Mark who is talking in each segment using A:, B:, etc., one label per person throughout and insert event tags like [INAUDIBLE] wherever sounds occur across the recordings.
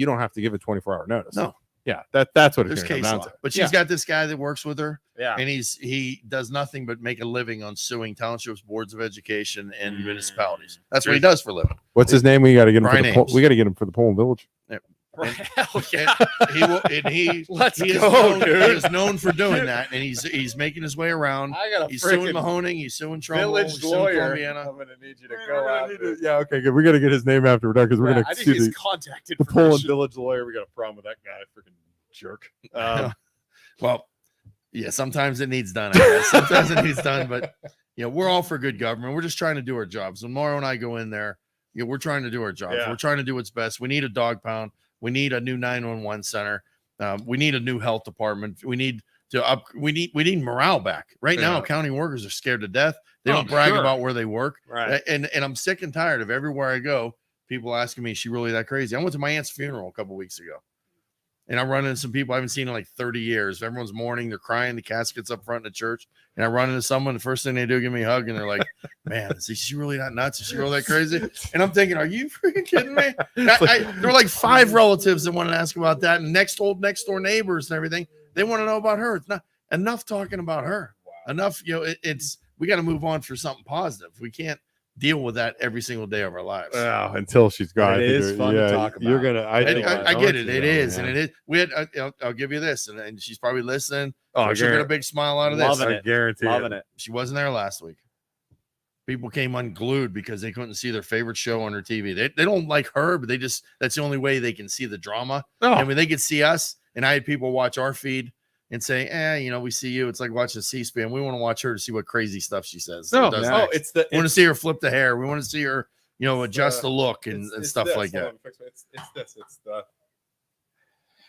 A: you don't have to give a 24 hour notice.
B: No.
A: Yeah, that that's what it's
B: There's
A: going
B: case
A: to come
B: law,
A: down to.
B: but she's
A: yeah.
B: got this guy that works with her,
A: yeah.
B: and he's he does nothing but make a living on suing townships, boards of education, and
C: Mm.
B: municipalities. That's what he does for a living.
A: What's his name? We got to get him. For
B: Brian
A: the Pol-
B: Ames.
A: we got to get him for the Pullman Village. [LAUGHS]
C: Right.
B: And-
C: Hell
B: and-
C: yeah.
B: He will, and [LAUGHS] he
C: Let's
B: he is,
C: go,
B: known, he
C: dude.
B: is known for doing that, and he's he's making his way
C: [LAUGHS]
B: around.
C: I got a
B: He's suing
C: freaking
B: Mahoning, he's suing Trumbull, he's
C: village
B: suing
C: lawyer.
B: Columbiana.
C: I'm gonna need you to go out.
A: Yeah, okay, good. We got to get his name after we're done because we're
C: Yeah,
A: going to
C: I think he's
A: sue the,
C: contacted
A: the
C: for
A: Pullman
C: permission.
A: Village lawyer. We got a problem with that guy, freaking
C: [LAUGHS]
A: jerk. Um,
B: Well, yeah, sometimes it needs done. I guess. Sometimes it needs done, but you know, we're all for good government. We're just trying to do our jobs. When Mauro and I go in there, you know, we're trying to do our jobs.
A: Yeah.
B: We're trying to do what's best. We need a dog pound. We need a new 911 center. Um, we need a new health department. We need to up. We need we need morale back. Right now,
A: Yeah.
B: county workers are scared to death. They
C: Oh,
B: don't brag
C: sure.
B: about where they work.
C: right.
B: A- and and I'm sick and tired of everywhere I go, people asking me, "Is she really that crazy?" I went to my aunt's funeral a couple weeks ago, and I run into some people I haven't seen in like 30 years. Everyone's mourning, they're crying, the casket's up front in the church, and I run into someone. The first thing they do, give me a hug, and they're like, "Man, is she really that nuts? Is she really that crazy?" And I'm thinking, "Are you freaking kidding me?" I, I, there were like five relatives that wanted to ask about that, and next old next door neighbors and everything. They want to know about her. It's not enough talking about her. Enough, you know. It, it's we got to move on for something positive. We can't deal with that every single day of our lives.
A: Well, until she's gone, I
C: It
A: think
C: is
A: you're-
C: fun to talk
A: You're
C: about.
A: gonna. I,
B: And
A: think-
B: I, I
A: know
B: get
A: what
B: it.
A: you
B: It
A: know,
B: is,
A: yeah.
B: and it is. We had. I, I'll, I'll give you this, and, and she's probably listening.
A: Oh,
B: she'll get a
A: guarantee,
B: big smile out of this.
C: Loving
A: I
C: it.
A: guarantee
C: Loving it.
B: She wasn't there last week. People came unglued because they couldn't see their favorite show on her TV. They, they don't like her, but they just that's the only way they can see the drama.
C: [LAUGHS]
A: No,
B: And when they could see us, and I had people watch our feed and say, "Eh, you know, we see you." It's like watching C-SPAN. We want to watch her to see what crazy stuff she says.
A: No,
B: or does
A: yeah.
C: Oh,
B: next.
C: it's the
B: we want to
C: it's,
B: see her flip the hair. We want to see her, you know,
D: It's,
B: adjust
D: uh,
B: the look and,
D: It's-
B: and
D: it's
B: stuff
D: this.
B: like
D: Hold
B: that.
D: on, fix my- It's, it's this. It's the.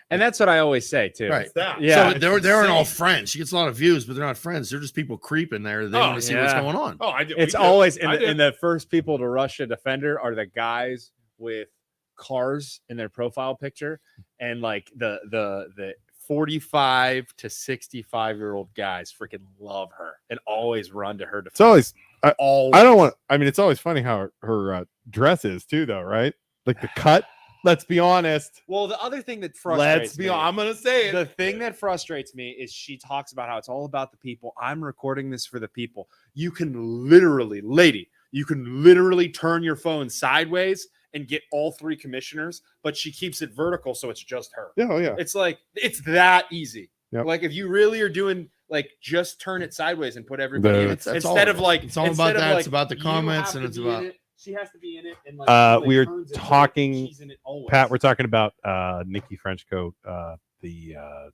C: and that's what I always say too.
B: Right.
D: It's that.
C: Yeah.
B: so they're they aren't all friends. She gets a lot of views, but they're not friends. They're just people creeping there. They
D: Oh,
B: want to see what's
C: yeah.
B: going on.
D: Oh, I do.
C: It's
D: we do.
C: always and
D: I
C: the,
D: do.
C: and the first people to rush a defender are the guys with cars in their profile picture and like the the the 45 to 65 year old guys freaking love her and always run to her defense.
A: it's always.
C: always.
A: I don't want. I mean, it's always funny how her, her uh, dress is too, though, right? Like the cut. Let's be honest.
C: Well, the other thing that frustrates
A: Let's be.
C: me,
A: hon- I'm gonna say it.
C: the thing that frustrates me is she talks about how it's all about the people. I'm recording this for the people. You can literally, lady, you can literally turn your phone sideways and get all three commissioners, but she keeps it vertical, so it's just her.
A: Yeah, oh, yeah.
C: It's like it's that easy.
A: Yep.
C: Like if you really are doing like just turn it sideways and put everybody in
A: The-
C: it.
B: That's- that's all
C: instead
B: of
C: of
B: it.
C: like
B: It's all
C: instead
B: about
C: of,
B: that. It's
C: like,
B: about the
C: you
B: comments and
C: have to
B: it's
C: be in
B: about-
C: it. she has to be in it and like
A: Uh,
C: somebody
A: we're
C: turns it, but
A: talking-
C: she's in it always.
A: Pat, we're talking about uh, Nikki Frenchcoat, uh, the uh,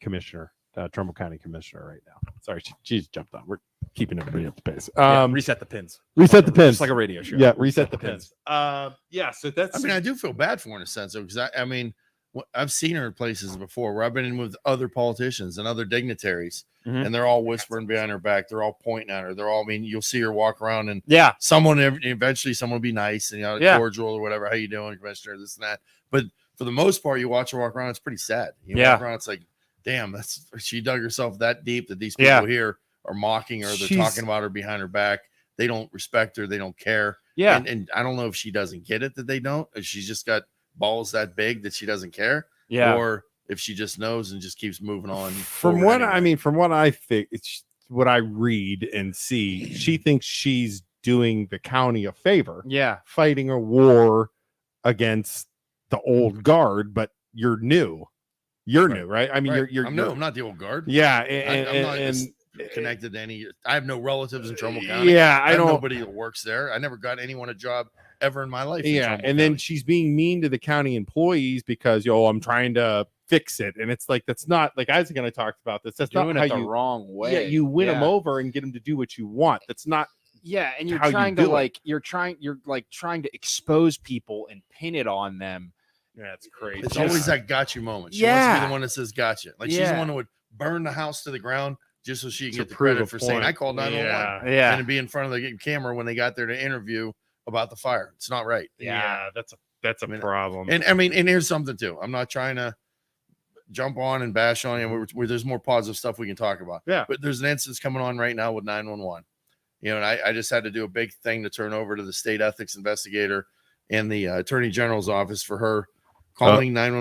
A: commissioner, uh, Trumbull County commissioner, right now. Sorry, she, she's jumped on. We're keeping everybody up to pace.
C: Yeah,
A: Um,
C: reset the pins.
A: reset the pins.
C: Just like a radio show.
A: yeah, reset the pins.
C: pins.
D: Uh, yeah. So that's.
B: I mean, I do feel bad for her in a sense because I, I mean, wh- I've seen her in places before where I've been in with other politicians and other dignitaries,
C: Mhm.
B: and they're all whispering behind her back. They're all pointing at her. They're all. I mean, you'll see her walk around and
C: Yeah.
B: someone ev- eventually someone will be nice and you know,
C: Yeah.
B: cordial or whatever. How you doing, commissioner? This and that. But for the most part, you watch her walk around. It's pretty sad. You walk
C: Yeah.
B: around. It's like, damn, that's she dug herself that deep that these people
C: Yeah.
B: here are mocking her. They're
A: She's-
B: talking about her behind her back. They don't respect her. They don't care.
C: Yeah.
B: And, and I don't know if she doesn't get it that they don't. If she's just got balls that big that she doesn't care.
C: yeah.
B: Or if she just knows and just keeps moving on.
A: From
B: forward
A: what
B: anyway.
A: I mean, from what I think, it's what I read and see. She thinks she's doing the county a favor.
C: yeah.
A: fighting a war against the old guard, but you're new. You're
B: Right.
A: new, right? I mean,
B: Right.
A: you're you're,
B: I'm,
A: you're
B: no, I'm not the old guard.
A: yeah, and,
B: I, am not
A: and-
B: just
A: and-
B: connected to any. I have no relatives in
A: Uh,
B: Trumbull County.
A: yeah,
B: I,
A: I
B: have
A: don't.
B: nobody that works there. I never got anyone a job ever in my life. in
A: Yeah,
B: Trumbull
A: and then
B: County.
A: she's being mean to the county employees because yo, I'm trying to fix it, and it's like that's not like Isaac and I talked about this. That's
C: Doing
A: not
C: it
A: how
C: the
A: you.
C: wrong way.
A: Yeah, you win them
C: Yeah.
A: over and get them to do what you want. That's not.
C: Yeah, and you're
A: how you
C: trying
A: do
C: to
A: it.
C: like you're trying you're like trying to expose people and pin it on them.
A: That's crazy.
B: it's
C: just-
B: always that gotcha moment. She wants to be
C: Yeah.
B: the one that says gotcha. Like she's the
C: Yeah.
B: one who would burn the house to the ground just so she can
A: To
B: get the
A: prove a
B: credit for saying
A: point.
B: I called 911
A: Yeah,
B: and to be in front of the camera when they got there to interview about the fire. It's not right.
A: yeah, that's a that's a
B: I mean,
A: problem.
B: And I mean, and here's something too. I'm not trying to jump on and bash on you. We're, we're- there's more positive stuff we can talk about.
A: Yeah.
B: But there's an instance coming on right now with 911. You know, and I, I just had to do a big thing to turn over to the state ethics investigator and the uh, attorney general's office for her calling nine